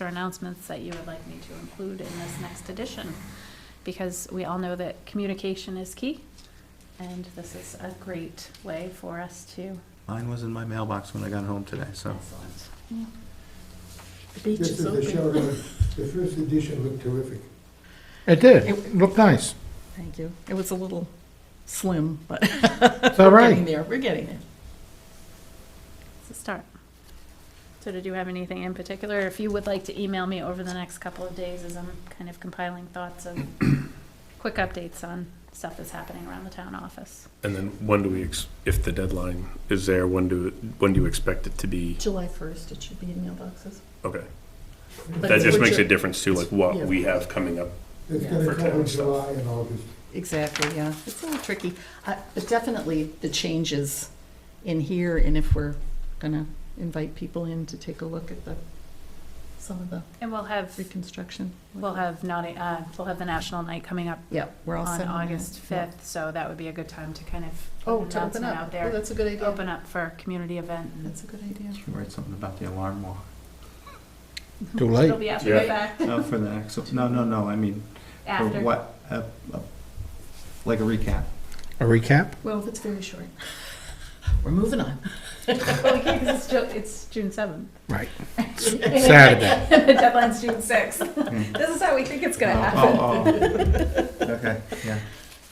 or announcements that you would like me to include in this next edition, because we all know that communication is key, and this is a great way for us to. Mine was in my mailbox when I got home today, so. Excellent. The beach Just is as a shout open. out, the first edition looked terrific. It did, looked nice. Thank you. It was a little slim, but It's all we're getting right. there, we're getting there. It's a start. So did you have anything in particular? If you would like to email me over the next couple of days as I'm kind of compiling thoughts and quick updates on stuff that's happening around the town office. And then when do we, ex- if the deadline is there, when do, when do you expect it to be? July 1st, it should be in mailboxes. Okay. But That it's just what makes a you're- difference to like what we have coming up. It's Yeah. gonna For cover town stuff. July and August. Exactly, yeah. It's a little tricky. Uh, But definitely the changes in here and if we're going to invite people in to take a look at the, some of the And we'll have, reconstruction. we'll have naughty, uh, we'll have the national night coming up Yeah, we're all on set. that. August Yeah. fifth, so that would be a good time to kind of. Oh, put an to open announcement up. Out Oh, there, that's a good idea. open up for a community event. and That's a good idea. Should write something about the alarm walk. Too It'll late. be after the Yeah. fact, No, Oh, for the actual, no, no, no, I mean, for after. what, uh, uh, like a recap. A recap? Well, it's very short. We're moving on. Well, we can't 'cause it's Ju- it's June seventh. Right. Saturday. The deadline's June sixth. This is how we think it's gonna Oh, happen. oh, oh. Okay, yeah.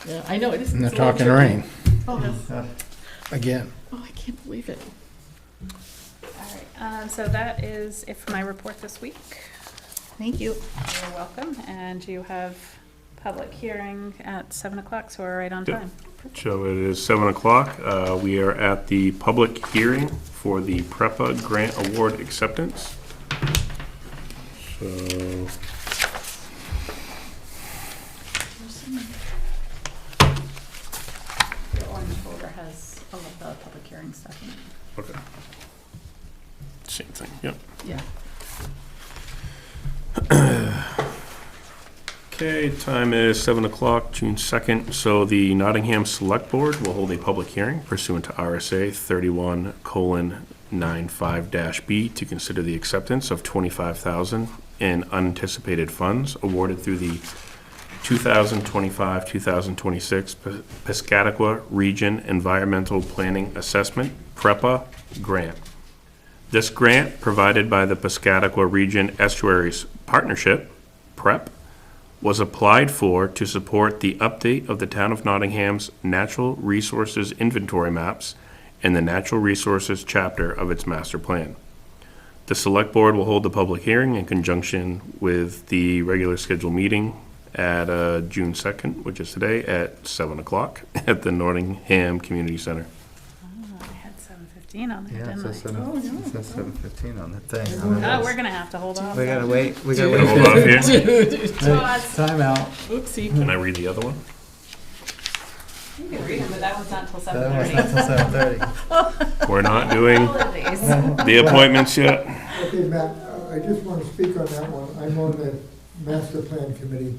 Yeah, I know, it is. In the it's a little talking tricky. rain, Oh, that's- Uh, again. oh, I can't believe it. All right, um, so that is it for my report this week. Thank you. You're welcome, and you have public hearing at seven o'clock, so we're right on Yep. time. So it is seven o'clock. Uh, We are at the public hearing for the PREPA grant award acceptance. So The orange folder has all of the public hearing stuff in it. Okay. Same thing, yep. Yeah. Okay, time is seven o'clock, June second, so the Nottingham Select Board will hold a public hearing pursuant to RSA thirty-one colon nine-five dash B to consider the acceptance of twenty-five thousand in unanticipated funds awarded through the two thousand twenty-five, two thousand twenty-six Piscataqua Region Environmental Planning Assessment, PREPA, grant. This grant, provided by the Piscataqua Region Estuaries Partnership, PREP, was applied for to support the update of the Town of Nottingham's Natural Resources Inventory Maps and the Natural Resources Chapter of its Master Plan. The Select Board will hold the public hearing in conjunction with the regular scheduled meeting at uh, June 2nd, which is today, at 7 o'clock at the Nottingham Community Center. Oh, I had seven fifteen on there, Yeah, it didn't I? says seven, it says seven fifteen on the thing. Oh, we're gonna have to hold off. We gotta wait, we gotta Can I hold wait. off here? Time out. Oopsie. Can I read the other one? You can read them, but that one's not till That seven was thirty. not till seven thirty. We're not doing the appointments yet. Okay, Matt, I- I just wanna speak on that one. I'm on the master plan committee.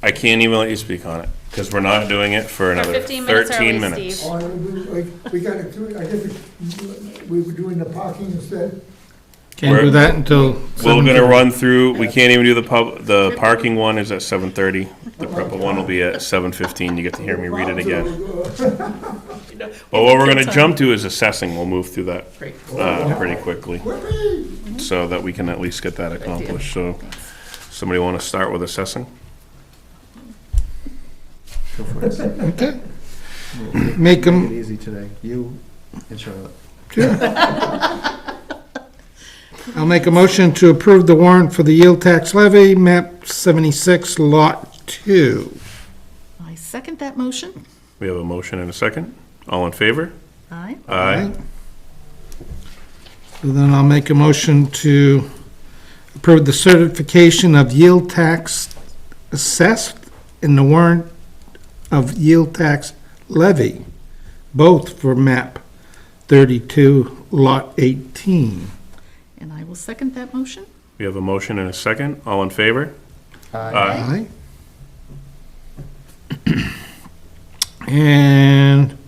I can't even let you speak on it because we're not doing it for another 15 minutes 13 early, minutes. Steve. Oh, and we- we- We gotta do, it. I guess we- we were doing the parking instead. Can't do We're- that until. We're 7:30. gonna run through, we can't even do the pub, the parking one is at 7:30. The PREPA one will be at 7:15. You get to hear me read it again. But what we're gonna jump to is assessing. We'll move through that Great. uh, pretty quickly Whoopee! so that we can at least get that accomplished. So, somebody want to start with assessing? Go for it. Steve. Okay. Take Make it them, easy today, you and Charlotte. I'll make a motion to approve the warrant for the yield tax levy, map seventy-six, lot two. I second that motion. We have a motion and a second. All in favor? Aye. Aye. So Then I'll make a motion to approve the certification of yield tax assessed in the warrant of yield tax levy, both for map 32, lot 18. And I will second that motion. We have a motion and a second. All in favor? Aye. Aye. And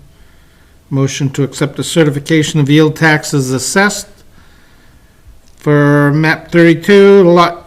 motion to accept the certification of yield taxes assessed for map 32, lot